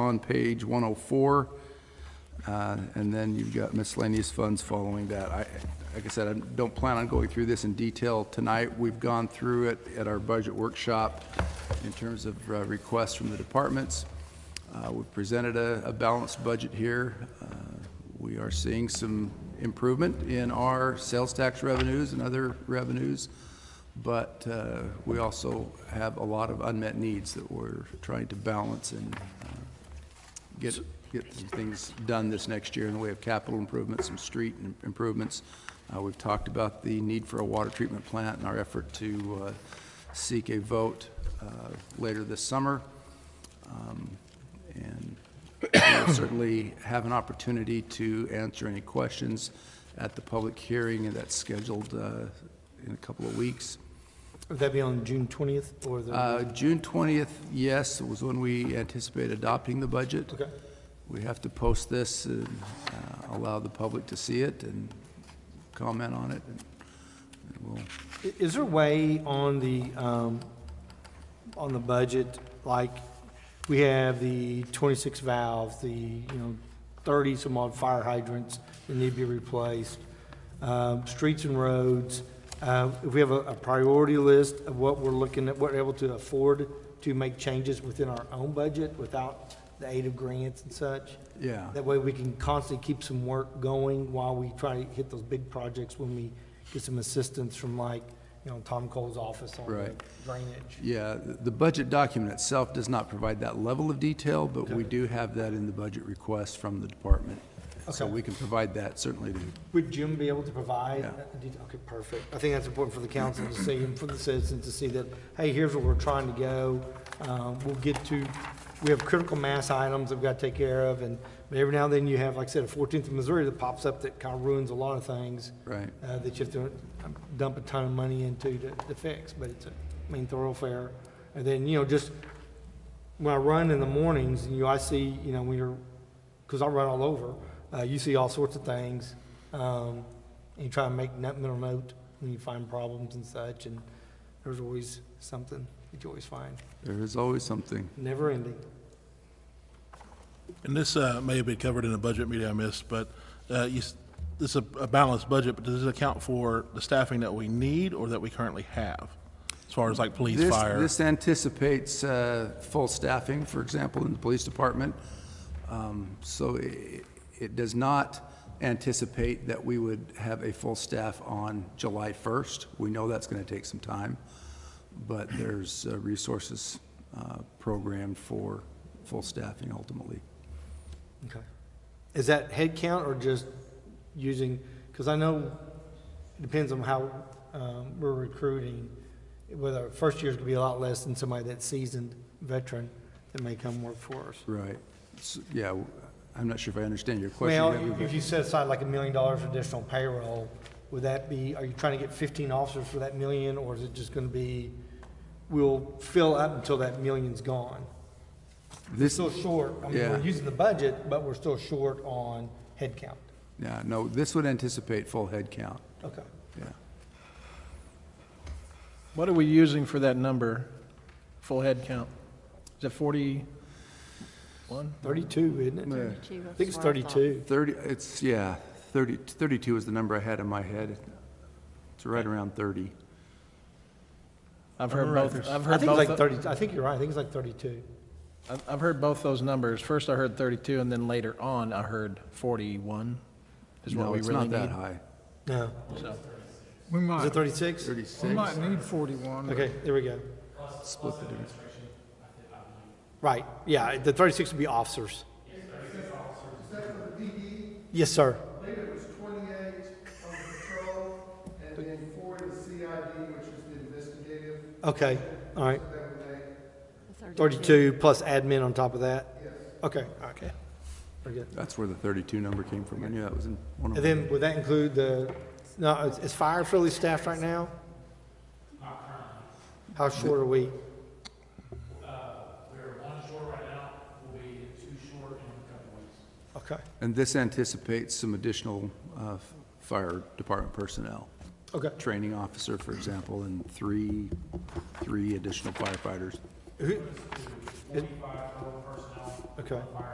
on page 104. Uh, And then you've got miscellaneous funds following that. I, like I said, I don't plan on going through this in detail tonight. We've gone through it at our budget workshop in terms of uh, requests from the departments. Uh, We've presented a, a balanced budget here. Uh, We are seeing some improvement in our sales tax revenues and other revenues, but uh, we also have a lot of unmet needs that we're trying to balance and uh, get, get some things done this next year in the way of capital improvements, some street im- improvements. Uh, we've talked about the need for a water treatment plant and our effort to, uh, seek a vote, uh, later this summer. Um, And we'll certainly have an opportunity to answer any questions at the public hearing that's scheduled, uh, in a couple of weeks. Would that be on June 20th or Uh, the? June twentieth, yes, was when we anticipate adopting the budget. Okay. We have to post this and uh, allow the public to see it and comment on it. and- and we'll- I- Is there a way on the, um, on the budget, like, we have the 26 valves, the, you know, 30 some odd fire hydrants that need to be replaced, um, streets and roads, uh, if we have a a priority list of what we're looking at, what we're able to afford to make changes within our own budget without the aid of grants and such? Yeah, That way we can constantly keep some work going while we try to hit those big projects when we get some assistance from like, you know, Tom Cole's office on the Right. drainage. yeah, the the budget document itself does not provide that level of detail, but we do have that in the budget request from the department. So Okay. we can provide that certainly to Would Jim be able to provide? Yeah. that detail? Okay, perfect. I think that's important for the council to see and for the citizens to see that, hey, here's where we're trying to go. Um, We'll get to, we have critical mass items that we've got to take care of and but every now and then you have, like I said, a 14th of Missouri that pops up that kind of ruins a lot of things. Right. uh, that you have to dump a ton of money into to, to fix, but it's a main thoroughfare. And then, you know, just, when I run in the mornings, you know, I see, you know, when you're, because I run all over, uh, you see all sorts of things. Um, and you try and make note- mental note when you find problems and such, and there's always something that you always find, There is always something. never ending. And this uh, may have been covered in a budget meeting I missed, but uh, you s- this is a a balanced budget, but does this account for the staffing that we need or that we currently have? As far as like police, This- fire? This anticipates uh, full staffing, for example, in the police department. Um, So i- it does not anticipate that we would have a full staff on July 1st. We know that's going to take some time, but there's uh, resources uh, programmed for full staffing ultimately. Okay. Is that head count or just using, because I know, it depends on how um, we're recruiting, whether first year's going to be a lot less than somebody that's seasoned veteran that may come work for us. Right. So, Yeah, w- I'm not sure if I understand your question. Well, Gabby, if but- you set aside like a million dollars for additional payroll, would that be, are you trying to get 15 officers for that million? Or is it just going to be, we'll fill up until that million's gone? This- Still short, I mean, Yeah. we're using the budget, but we're still short on head count. Yeah, no, this would anticipate full head count, Okay. yeah. What are we using for that number, full head count? Is it 41? 32, isn't it? Thirty-two, I think it's that's what I thought. 32. 30, it's, yeah, 30, 32 is the number I had in my head. It's right around 30. I've heard both, I've I heard think it's like both, 30, I think you're right, I think it's like 32. I've- I've heard both those numbers. First I heard 32, and then later on I heard 41 is what No, we it's really not that need. high. No. So, We Is it might, 36? we 36, might need 41. but Okay, there we go. split the difference. Right, yeah, the 36 would be officers. Yes, sir. I believe it was 28 on the patrol, and then four in the CID, which is the investigative, Okay, all right. that would make 32 plus admin on top of that? Yes. Okay, all right. okay. Very good. That's where the 32 number came from. I knew that was in one And of them. then would that include the, no, is- is fire fully staffed right now? How short are we? Uh, We're one short right now, we'll be two short in a couple weeks. Okay, And this anticipates some additional uh, fire department personnel. okay. Training officer, for example, and three, three additional firefighters. Who- is- Okay.